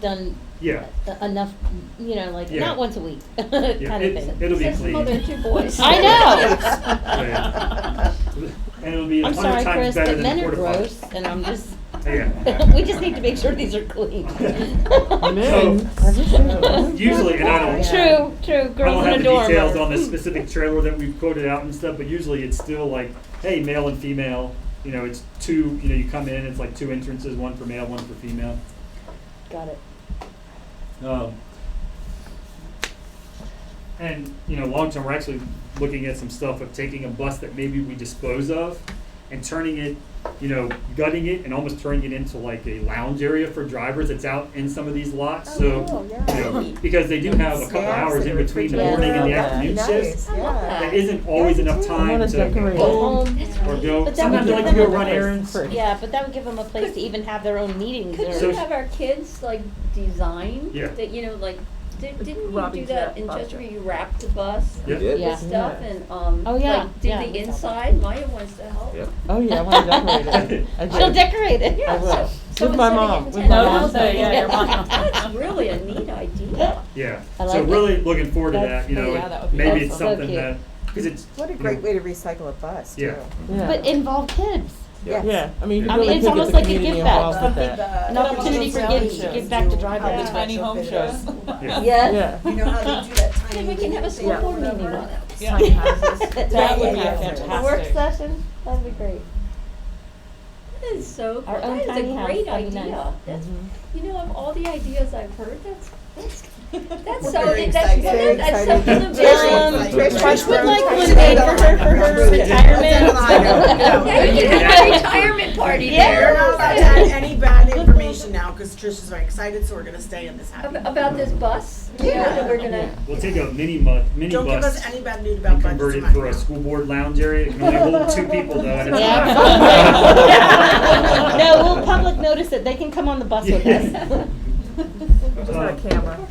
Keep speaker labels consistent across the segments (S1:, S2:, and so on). S1: done
S2: Yeah.
S1: e- enough, you know, like
S2: Yeah.
S1: not once a week kind of
S2: Yeah, it-
S1: thing.
S2: It'll be
S3: Says the
S2: clean.
S3: mother of two boys.
S1: I
S2: know. And it'll be a
S1: I'm
S2: hundred
S1: sorry,
S2: times
S1: Chris,
S2: better
S1: but
S2: than
S1: men
S2: the
S1: are
S2: porta
S1: gross,
S2: potty.
S1: and I'm just.
S2: Yeah.
S1: we just need to make sure these are clean.
S2: Men. Usually, and I don't.
S1: True, true.
S2: I don't
S1: Girls in
S2: have
S1: a
S2: the
S1: dorm.
S2: details
S1: are-
S2: on the specific trailer that we've quoted out and stuff, but usually it's still like, hey, male and female, you know, it's two, you know, you come in, it's like two entrances, one for male, one for female.
S1: Got it.
S2: Um, and you know, long term, we're actually looking at some stuff of taking a bus that maybe we dispose of and turning it, you know, gutting it and almost turning it into like a lounge area for drivers that's out in some of these lots. so
S3: cool,
S2: you
S3: yeah.
S2: know, because they do have a couple
S4: Snacks
S2: hours
S4: and
S2: in between the
S4: refrigerator.
S2: morning and the
S1: Yeah,
S2: afternoon
S4: nice,
S2: shifts.
S3: I love
S4: yeah.
S2: There
S3: that.
S2: isn't always
S3: Yeah,
S2: enough
S3: me too.
S4: I
S2: time
S4: wanna
S2: to go
S4: decorate.
S2: home
S1: That's
S2: or
S1: right.
S2: go.
S1: But that
S2: Sometimes
S1: would
S2: I like
S1: be
S2: to go
S1: fun.
S2: run errands.
S1: Yeah, but that would give them a place to even have their own meetings.
S3: Couldn't
S2: So-
S3: we
S1: Or,
S3: have our kids like design?
S2: Yeah.
S3: That, you know, like, di- didn't you do
S4: Robin's
S3: that
S4: wrap
S3: in
S4: project.
S3: just where you wrap the bus?
S2: Yeah.
S5: did?
S1: yeah.
S3: Stuff
S4: Yeah.
S3: and, um,
S1: Oh, yeah,
S3: like, did
S1: yeah,
S3: the
S1: we saw
S3: inside, Maya wants to help.
S5: Yeah.
S4: Oh, yeah, I want to decorate it. I
S1: She'll
S4: did.
S1: decorate it.
S3: Yeah,
S4: I will.
S3: so, so
S4: With my
S3: instead of
S4: mom,
S3: getting
S4: with my mom.
S3: 10,000,
S1: Oh, yeah, your mom.
S3: That's really a neat idea.
S2: Yeah,
S1: I
S2: so
S1: like
S2: really looking forward to
S1: That's-
S2: that, you know,
S1: yeah,
S2: it-
S1: that would be
S2: maybe it's
S1: awesome. So
S2: something
S1: cute.
S2: that, cause it's.
S6: What a
S2: you
S6: great
S2: know,
S6: way to recycle a bus, too.
S2: Yeah.
S4: Yeah.
S1: But involve kids.
S5: Yeah.
S4: Yeah, I mean, you
S1: I
S4: really
S1: mean, it's
S4: could get
S1: almost
S4: the
S1: like a
S4: community
S1: give back.
S4: involved with that.
S1: An
S7: Yeah,
S1: opportunity
S7: but
S1: for
S7: those
S1: kids to
S7: sound
S1: give back to
S6: How
S1: drivers.
S6: the
S7: Tiny home shows.
S2: Yeah.
S1: Yes.
S4: Yeah.
S6: You know how they do that tiny.
S3: Then we can have a school
S4: Yeah.
S3: board meeting on it.
S7: Yeah.
S1: That
S7: would be
S1: A work
S7: fantastic.
S1: session, that'd be great.
S3: That is so,
S1: Our
S3: cool.
S1: own
S3: that is
S1: tiny
S3: a
S1: house,
S3: great
S1: that'd be nice.
S3: idea. That's, you know, of all the ideas I've heard, that's, that's, that's so,
S6: very
S3: that's,
S6: excited. Very
S3: that's something about.
S6: excited.
S1: Um,
S5: Trish
S1: Trish would
S5: Brown
S1: like
S5: type
S1: one made for her, for her
S6: Yeah.
S3: Yeah,
S1: retirement.
S3: you can have a retirement party
S1: Yeah.
S3: there.
S6: We're not allowed to add any bad information now, because Trish is very excited, so we're gonna stay in this happy.
S3: Ab- About this bus, you know, that we're gonna,
S2: We'll take a mini mu, mini
S6: Don't give
S2: bus
S6: us any bad news about
S2: and
S6: budgets
S2: convert it
S6: tonight.
S2: for a school board lounge area, it can only hold two people though at a time.
S1: Yeah, absolutely. No, we'll public notice it, they can come on the bus with us.
S2: Um,
S4: camera.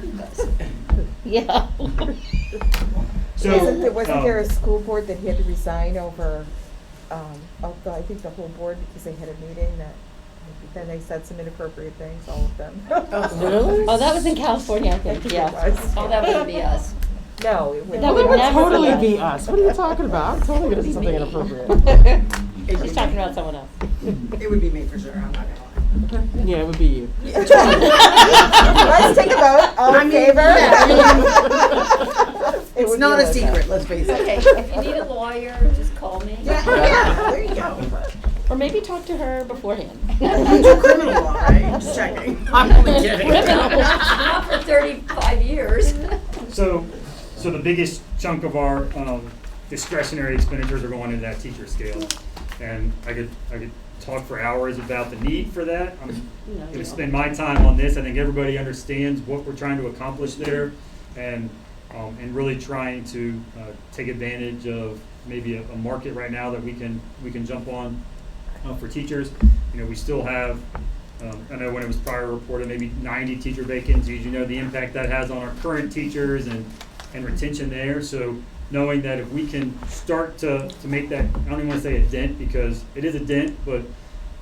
S1: Yeah.
S2: So.
S6: Isn't there, wasn't
S2: um,
S6: there a school board that he had to resign over, um, oh, the- I think the whole board, because they had a meeting that, then they said some inappropriate things, all of them.
S4: Really?
S1: Oh, that was in California, I
S6: I
S1: think,
S6: think it
S1: yeah.
S6: was.
S3: oh, that wouldn't be us.
S6: No, it
S1: That
S4: That
S1: would
S4: would
S6: was.
S1: never
S4: totally
S1: be
S4: be us. What are you talking about? I'm totally gonna do something inappropriate.
S1: She's talking about someone else.
S8: It would be me for sure, I'm not gonna lie.
S4: Yeah, it would be you.
S6: Let's take a vote, all in favor? It
S8: It's
S6: would
S8: not
S6: be
S8: a
S6: vote,
S8: secret, let's face it.
S3: Okay, if you need a lawyer, just call me.
S8: Yeah, yeah, there you go.
S1: Or maybe talk to her beforehand.
S8: It's criminal law, right? Just checking. I'm only kidding.
S3: Not for thirty-five years.
S2: So, so the biggest chunk of our um, discretionary expenditures are going into that teacher scale. And I could, I could talk for hours about the need for that. I'm gonna spend my time on this. I think everybody understands what we're trying to accomplish there and, um, and really trying to uh, take advantage of maybe a, a market right now that we can, we can jump on uh, for teachers. You know, we still have, um, I know when it was prior reported, maybe ninety teacher vacancies, you know, the impact that has on our current teachers and, and retention there. So knowing that if we can start to, to make that, I don't even wanna say a dent, because it is a dent, but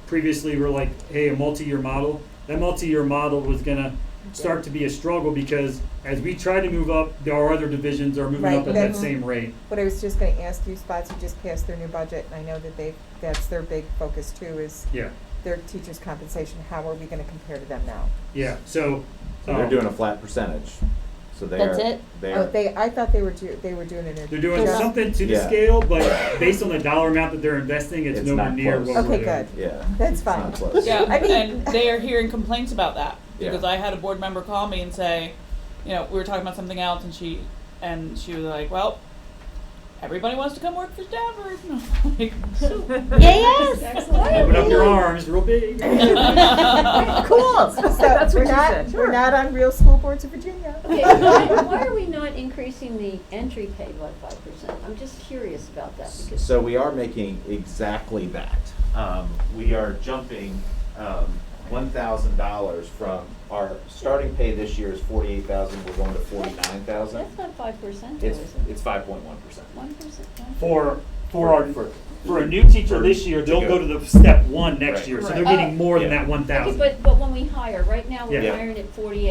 S2: previously we we're like, hey, a multi-year model. That multi-year model was gonna start to be a struggle because as we try to move up, there are other divisions are moving
S6: Right,
S2: up at that
S6: then-
S2: same rate.
S6: What I was just gonna ask you, Spots, you just passed their new budget, and I know that they, that's their big focus too, is
S2: Yeah,
S6: their teachers' compensation, how are we gonna compare to them now?
S2: yeah, so.
S5: So they're
S2: um,
S5: doing a flat percentage. So they're
S1: That's it?
S5: they're
S6: Oh, they, I thought they were do, they were doing it in.
S2: They're doing
S6: just-
S2: something to the
S5: Yeah.
S2: scale, but based on the dollar amount that they're investing, it's,
S5: It's
S2: nowhere
S5: not
S2: near
S5: close.
S2: what we're
S6: Okay,
S2: doing.
S6: good.
S5: yeah.
S6: That's
S5: It's not
S6: fine.
S5: close.
S7: Yeah,
S6: I mean-
S7: and they are hearing complaints about that
S5: Yeah.
S7: because I had a board member call me and say, you know, we were talking about something else, and she and she was like, well. Everybody wants to come work for Danvers. And I'm like,
S1: Yeah, yes.
S2: Open up your arms real big.
S6: Cool, so we're not, we're not on real school boards of Virginia.
S3: Okay, why, why are we not increasing the entry pay by five percent? I'm just curious about that because.
S5: So we are making exactly that. Um, we are jumping, um, one thousand dollars from our starting pay this year is forty-eight thousand, we're going to forty-nine thousand.
S3: That's not five percent, though,
S5: It's,
S3: is it?
S5: it's five point one percent.
S3: One percent?
S2: For for our,
S5: For-
S2: for a new teacher
S5: for-
S2: this year,
S5: to
S2: they'll
S5: go.
S2: go to the step one next
S5: Right.
S2: year, so
S8: Right.
S2: they're getting more than
S5: Yeah.
S2: that one
S3: Okay,
S2: thousand.
S3: but, but when we hire, right now, we're
S2: Yeah.
S3: hiring at forty-eight